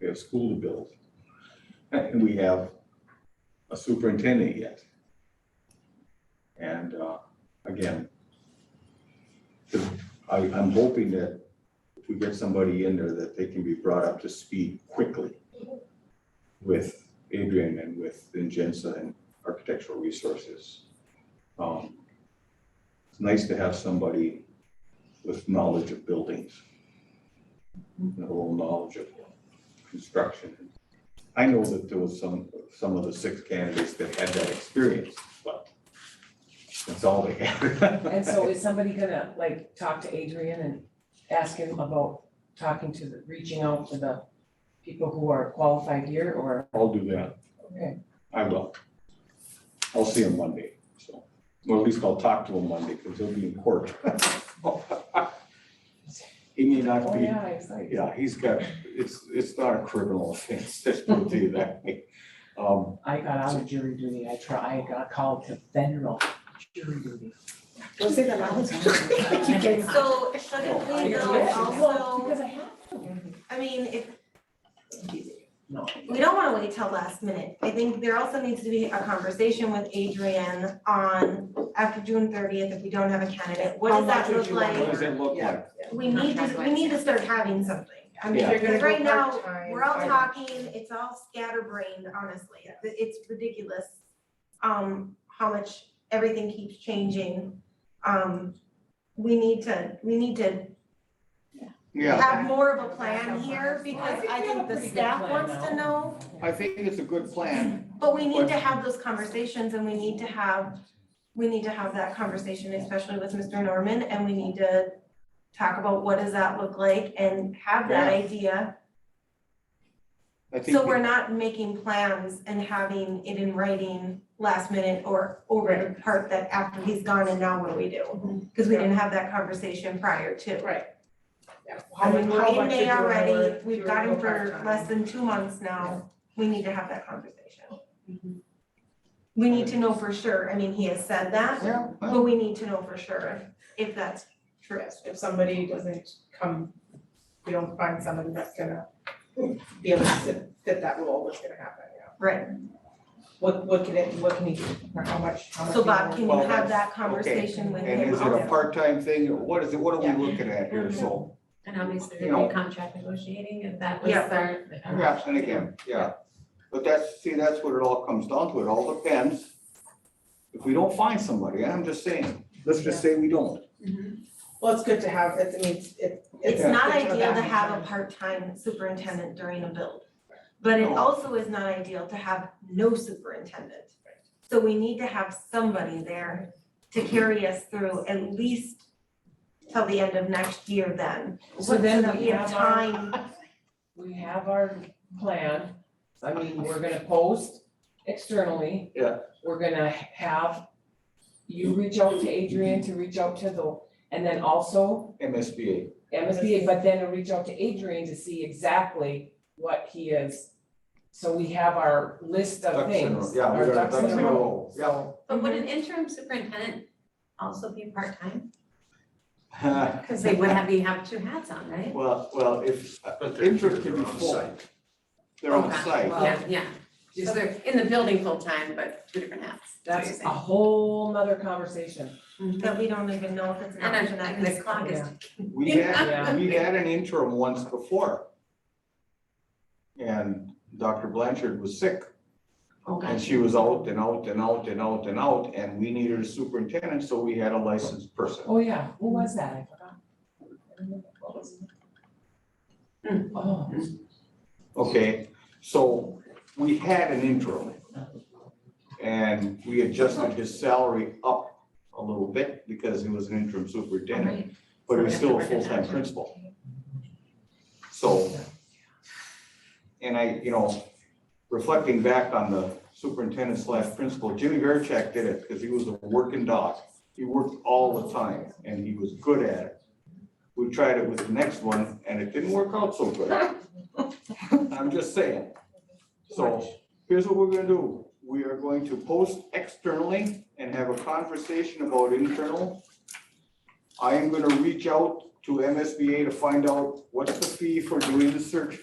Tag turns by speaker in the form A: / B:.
A: we have school to build. And we have a superintendent yet. And uh, again, the- I, I'm hoping that if we get somebody in there, that they can be brought up to speed quickly with Adrian and with Ingenza and Architectural Resources. Um, It's nice to have somebody with knowledge of buildings. and A little knowledge of construction. I know that there was some, some of the six candidates that had that experience, but that's all they had.
B: And so is somebody gonna like talk to Adrian and ask him about talking to the, reaching out to the people who are qualified here or,
A: I'll do that.
B: Okay.
A: I will. I'll see him Monday, so, well, at least I'll talk to him Monday, because he'll be in court. He may not
B: oh
A: be,
B: yeah, it's like,
A: yeah, he's got, it's, it's not a criminal offense, let's put it that way. Um,
B: I got out of jury duty, I try, I got called to federal jury duty.
C: Don't say that loud.
B: keep getting-
D: So shouldn't we though
B: Well,
D: also,
B: Because I have to.
D: I mean, if,
B: No.
D: we don't wanna wait till last minute. I think there also needs to be a conversation with Adrian on after June thirtieth, if we don't have a candidate, what
C: How
D: does that
C: much would
D: look
C: you want?
A: what
D: like?
A: does that look
C: Yeah.
A: like?
D: We need to, we need to start having something. I mean,
A: Yeah.
C: If you're gonna
D: because
C: go
D: right now,
C: part-time,
D: we're all
C: I-
D: talking, it's all scatterbrained, honestly. It- It's ridiculous. Um, how much everything keeps changing. Um, we need to, we need to
A: Yeah,
D: have more of a plan here because I think the staff wants to know,
E: I think it's a good plan.
D: but we need to have those conversations and we need to have, we need to have that conversation, especially with Mr. Norman, and we need to talk about what does that look like and have that
A: Yeah.
D: idea.
E: I think
D: So we're not making plans and having it in writing last minute or over the part that after he's gone and now what do we do? Cause we didn't have that conversation prior to. I
C: How
D: mean,
C: mu-
D: we're
C: how
D: in
C: much is
D: May
C: your
D: already,
C: hour
D: we've
C: during
D: got him
C: the
D: for
C: part-time?
D: less than two months now, we need to have that conversation. We need to know for sure, I mean, he has said that,
E: Yeah,
D: but we need to know for sure if if that's true.
C: Yes, if somebody doesn't come, we don't find somebody that's gonna be able to fit- fit that role, what's gonna happen, yeah.
D: Right,
C: What, what can it, what can he, do, or how much, how much?
D: so
C: do you
D: Bob,
C: want?
D: can you
E: Well,
D: have
E: that's-
D: that
E: okay.
D: conversation with
E: and
D: him
E: is it a
D: also?
E: part-time thing, or what is it, what are we looking at here, so?
F: And obviously,
E: You
F: there'd
E: know.
F: be contract negotiating, and that was
D: Yeah.
F: our. our-
E: Yeah, and again, yeah, but that's, see, that's what it all comes down to, it all depends. If we don't find somebody, I'm just saying, let's just say we don't.
C: Well, it's good to have, it's, I mean, it's, it- it's.
D: It's not
C: good to
D: ideal to
C: that.
D: have a part-time superintendent during a build, but it
E: No.
D: also is not ideal to have no superintendent. So we need to have somebody there to carry us through at least till the end of next year then.
B: So then
D: that
B: we have our-
D: time,
B: we have our plan, I mean, we're gonna post externally.
E: Yeah.
B: We're gonna have you reach out to Adrian to reach out to the, and then also
E: MSBA,
B: MSBA, but then reach out to Adrian to see exactly what he is. So we have our list of
E: ducks in a row,
B: things,
E: yeah,
B: our
E: we're gonna
B: ducks
E: ducks in a row, yeah.
B: so.
F: But would an interim superintendent also be part-time? Because they would have, be have two hats on, right?
E: Well, well, if,
G: But they're,
E: interest can
G: they're
E: be
G: on
E: full,
G: site.
E: they're on
F: Okay.
E: site,
F: Yeah, yeah, so they're in the building full-time, but two different hats, that's
B: That's a
F: what
B: whole nother conversation.
F: you're saying.
D: that we don't even know if it's an
F: And
D: option
F: I-
D: at
F: and
D: this
F: the
D: point.
F: clock is
B: Yeah.
E: We
B: Yeah.
E: had, we had an interim once before. And Dr. Blanchard was sick
F: Okay.
E: and she was out and out and out and out and out and we needed a superintendent, so we had a licensed person.
B: Oh, yeah, who was that? I forgot. I don't remember. What was it? Oh.
E: Okay, so we had an interim. And we adjusted his salary up a little bit because he was an interim superintendent,
F: Alright.
E: but he was still a
F: So we have to work
E: full-time
F: it out.
E: principal. So, and I, you know, reflecting back on the superintendent slash principal, Jimmy Verchek did it because he was a working dog. He worked all the time and he was good at it. We tried it with the next one and it didn't work out so good. I'm just saying. So here's what we're gonna do. We are going to post externally and have a conversation about internal. I am gonna reach out to MSBA to find out what's the fee for doing the search